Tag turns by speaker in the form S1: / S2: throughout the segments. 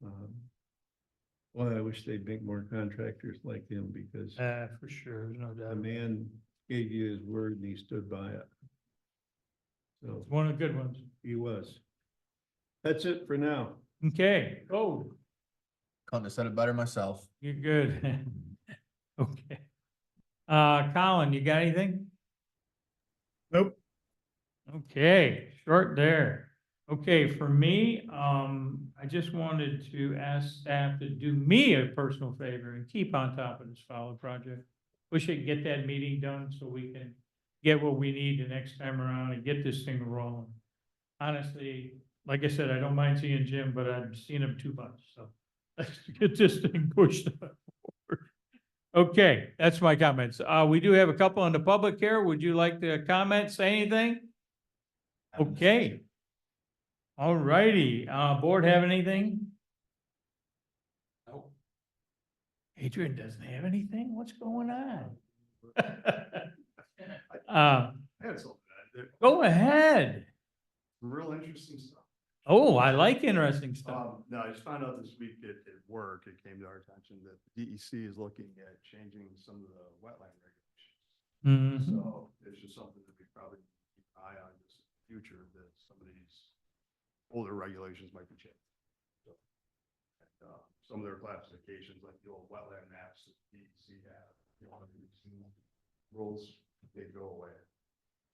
S1: Well, Um, I wish they'd make more contractors like him because
S2: Uh, for sure, there's no doubt.
S1: the man gave you his word and he stood by it. So
S2: It's one of the good ones.
S1: he was. That's it for now.
S2: Okay, oh,
S3: Couldn't have said it better myself.
S2: you're good. Okay. Uh, Colin, you got anything?
S4: Nope.
S2: Okay, short there. Okay, for me, um, I just wanted to ask staff to do me a personal favor and keep on top of this follow project. We should get that meeting done so we can get what we need the next time around and get this thing rolling. Honestly, like I said, I don't mind seeing Jim, but I've seen him too much, so let's get this thing pushed forward. Okay, that's my comments. Uh, we do have a couple on the public here. Would you like to comment, say anything? Okay. All righty, uh, board have anything? No. Adrian doesn't have anything? What's going on? Uh,
S4: That's all good. There's
S2: go ahead.
S4: some real interesting stuff.
S2: Oh, I like interesting stuff.
S4: Um, no, I just found out this week at, at work, it came to our attention that the DEC is looking at changing some of the wetland regulations.
S2: Mhm.
S4: So it's just something that we probably keep an eye on just in the future, that some of these older regulations might be changed. So, and, uh, Some of their classifications, like the old wetland maps that DEC have, you know, these rules, they go away.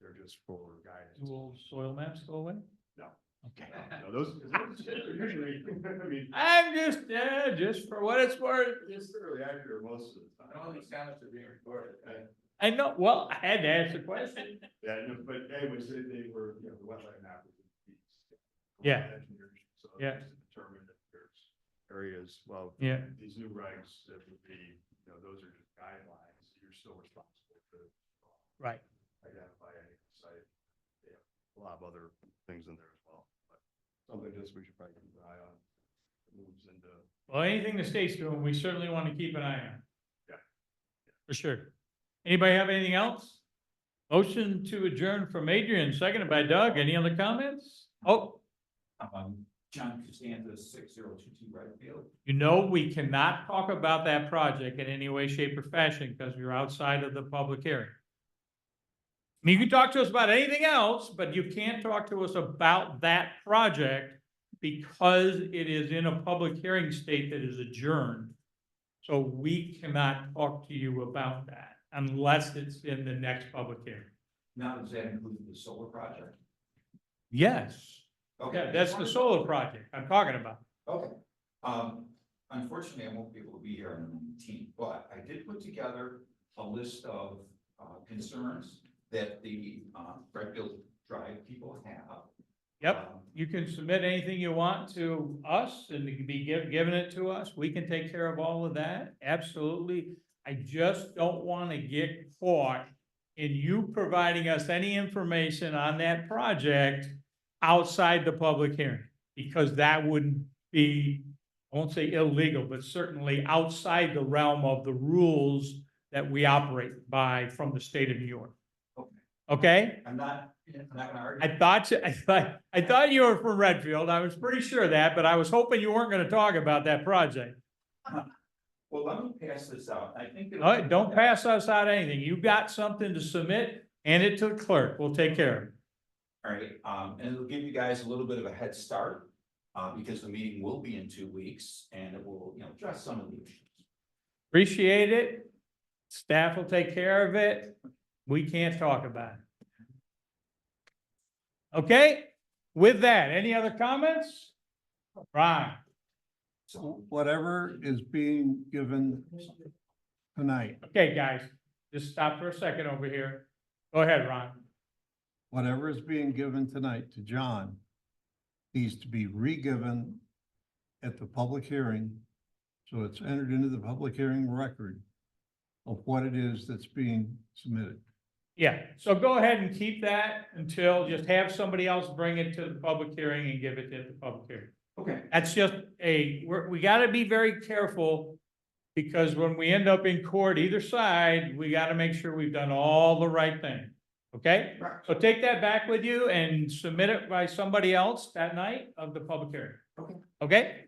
S4: They're just for guidance.
S2: Do old soil maps go away?
S4: No.
S2: Okay.
S4: No, those, those are usually, I mean,
S2: I'm just, uh, just for what it's worth.
S4: it's fairly accurate most of the time.
S3: sounds are being recorded.
S2: I know, well, I had to ask the question.
S4: Yeah, no, but anyways, they, they were, you know, the wetland map was in the east.
S2: Yeah.
S4: Engineers, So
S2: Yeah.
S4: it's determined that there's areas, well,
S2: Yeah,
S4: these new regs that would be, you know, those are just guidelines. You're still responsible to uh,
S2: right.
S4: identify any site. They have a lot of other things in there as well, but something just we should probably keep an eye on. It Moves into,
S2: Well, anything the state's doing, we certainly want to keep an eye on.
S4: Yeah.
S2: For sure. Anybody have anything else? Motion to adjourn from Adrian, seconded by Doug. Any other comments? Oh,
S5: Um, John Costanza, six zero two two right field.
S2: you know, we cannot talk about that project in any way, shape or fashion because you're outside of the public hearing. I mean, you can talk to us about anything else, but you can't talk to us about that project because it is in a public hearing state that is adjourned. So we cannot talk to you about that unless it's in the next public hearing.
S5: Now, does that include the solar project?
S2: Yes.
S5: Okay,
S2: Yeah, that's the solar project I'm talking about.
S5: Okay, um, unfortunately, I won't be able to be here on the nineteenth, but I did put together a list of, uh, concerns that the, uh, Redfield Drive people have.
S2: Yep.
S5: Um,
S2: you can submit anything you want to us and it can be given, given it to us. We can take care of all of that, absolutely. I just don't want to get caught in you providing us any information on that project outside the public hearing, because that wouldn't be, I won't say illegal, but certainly outside the realm of the rules that we operate by from the state of New York.
S5: Okay.
S2: Okay?
S5: I'm not, I'm not gonna argue.
S2: I thought, you- I thought, I thought you were from Redfield. I was pretty sure of that, but I was hoping you weren't gonna talk about that project.
S5: Well, let me pass this out. I think. that-
S2: All right, don't pass us out anything. You got something to submit, hand it to the clerk. We'll take care of it.
S5: All right, um, and it'll give you guys a little bit of a head start, uh, because the meeting will be in two weeks and it will, you know, address some of the issues.
S2: Appreciate it. Staff will take care of it. We can't talk about it. Okay, with that, any other comments? Ron?
S5: So,
S1: Whatever is being given tonight,
S2: Okay, guys, just stop for a second over here. Go ahead, Ron.
S1: whatever is being given tonight to John needs to be re-given at the public hearing. So it's entered into the public hearing record of what it is that's being submitted.
S2: Yeah, so go ahead and keep that until, just have somebody else bring it to the public hearing and give it at the public hearing.
S5: okay,
S2: That's just a, we're, we gotta be very careful. Because when we end up in court either side, we gotta make sure we've done all the right thing, okay?
S5: right,
S2: So take that back with you and submit it by somebody else that night of the public hearing.
S5: Okay.
S2: Okay,